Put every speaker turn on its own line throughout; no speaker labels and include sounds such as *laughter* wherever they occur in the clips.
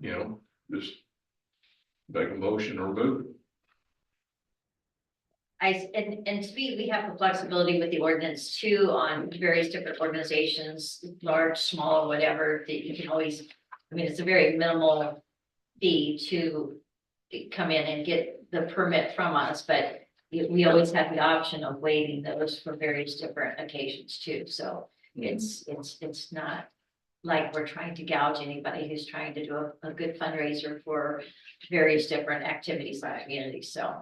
you know, just make a motion or vote.
I, s- and, and to me, we have the flexibility with the ordinance too on various different organizations, large, small, whatever, that you can always, I mean, it's a very minimal fee to come in and get the permit from us, but we, we always have the option of waiving those for various different occasions too, so it's, it's, it's not like we're trying to gouge anybody who's trying to do a, a good fundraiser for various different activities by the community, so.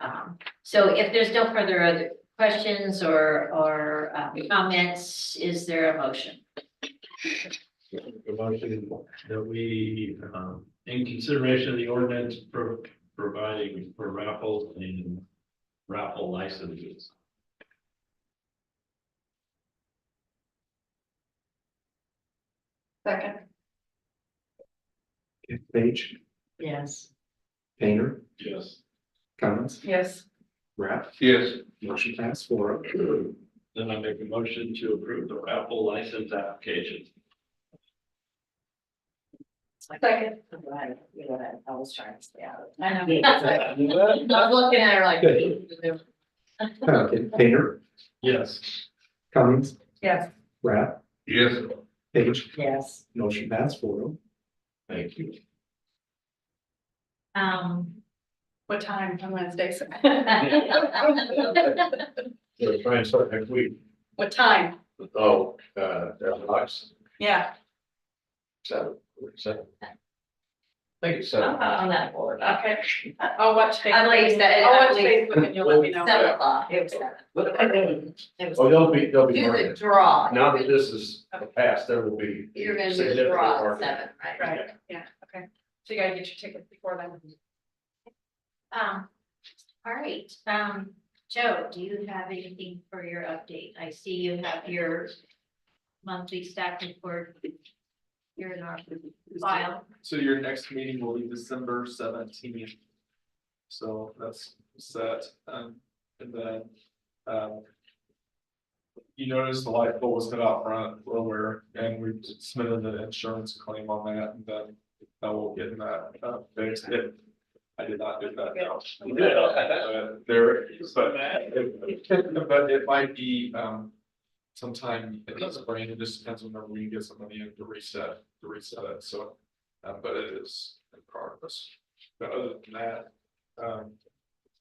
Um, so if there's no further other questions or, or uh, comments, is there a motion?
A motion that we, um, in consideration of the ordinance pro- providing for raffles and raffle licenses.
Second.
Page,
Yes.
Painter,
Yes.
Cummins,
Yes.
Rapp,
Yes,
motion pass four oh.
Then I make a motion to approve the raffle license application.
Second.
Right, you know, that I was trying to stay out of.
I know.
I was *laughs* looking at her like.
Okay, Painter,
*laughs* Yes.
Cummins,
Yes.
Rapp,
yes,
Page,
Yes.
motion pass four oh.
Thank you.
Um. *laughs*
What time on Wednesdays? *laughs*
So try and start next week.
What time?
Oh, uh, that's nice.
Yeah.
Seven, seven. I think it's
I'm not on that board.
Okay. I'll watch Facebook.
I believe that-
I'll watch
I believe-
Facebook and you'll let me
Seven
know.
o'clock, it was seven. It was-
Oh, they'll be, they'll be.
Do the
marking.
draw.
Now that this is past, there will be.
You're gonna do the
significant
draw at
marking.
seven, right?
Right, yeah, okay. So you gotta get your tickets before then.
Um, all right, um, Joe, do you have anything for your update? I see you have your monthly staff report. Here in our file.
So your next meeting will be December seventeenth. So that's set, um, and then, um. You notice the light pole was hit out front earlier, and we submitted an insurance claim on that, and then I will get that, uh, fixed if I did not do that now.
*laughs*
But Uh, There, but, but it might be, um, sometime in the spring, it just depends on whenever we get some money in to reset, to reset it, so. Uh, but it is in progress, but other than that, um.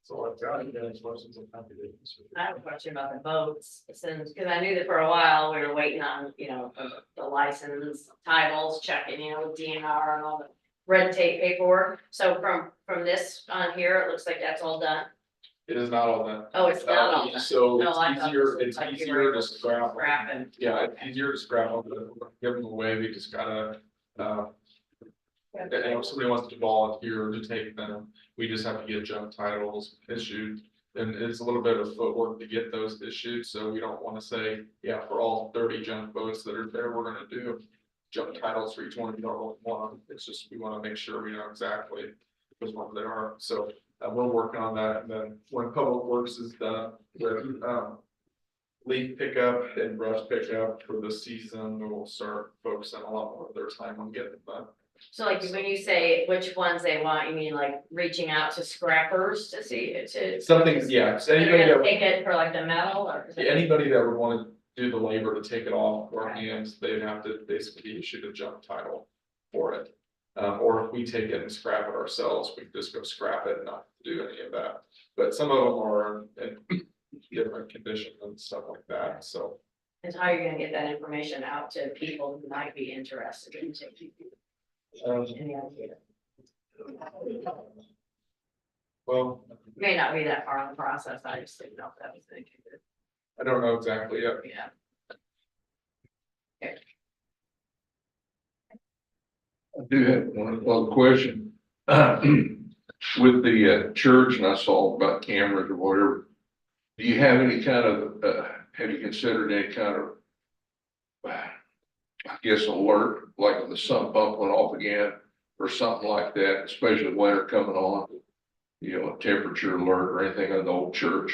So I've got you guys, questions, I'm happy to answer.
I have a question about the boats, since, because I knew that for a while, we were waiting on, you know, the license titles, checking, you know, with DNR and all the red tape paperwork. So from, from this on here, it looks like that's all done.
It is not all that.
Oh, it's not all
Uh,
done.
So
No, I
it's
thought
easier,
this
it's
was like you
easier
were
to scrap.
Scrap and-
Yeah, it's easier to scrap, them than give them away, we just gotta, uh, and if somebody wants to volunteer to take them, we just have to get junk titles issued. And it's a little bit of footwork to get those issued, so we don't wanna say, yeah, for all thirty junk boats that are there, we're gonna do. Junk titles for each one, we don't want one, it's just, we wanna make sure we know exactly which ones they are, so. Uh, we're working on that, and then when public works is done, with um. Leaf pickup and brush pickup for the season, we'll start focusing a lot more of their time on getting them.
So like when you say which ones they want, you mean like reaching out to scrappers to see, to.
Something's, yeah, so
They're
anybody that,
gonna take it for like the metal or?
yeah, anybody that would wanna do the labor to take it off our hands, they'd have to basically be issued a junk title for it. Um, or if we take it and scrap it ourselves, we just go scrap it and not do any of that, but some of them are in in *coughs* different condition and stuff like that, so.
And how you're gonna get that information out to people who might be interested in taking
Uh,
um,
any idea?
Well,
May not be that far on the process, I just didn't know if that was thinking,
I don't know exactly yet,
yeah.
I do have one other question. *clears throat* With the uh, church and I saw about cameras or whatever. Do you have any kind of, uh, have you considered any kind of? uh, I guess alert, like the sump pump went off again or something like that, especially winter coming on. You know, a temperature alert or anything on the old church.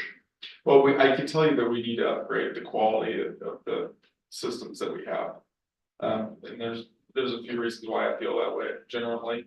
Well, we, I can tell you that we need to upgrade the quality of, of the systems that we have. Um, and there's there's a few reasons why I feel that way generally.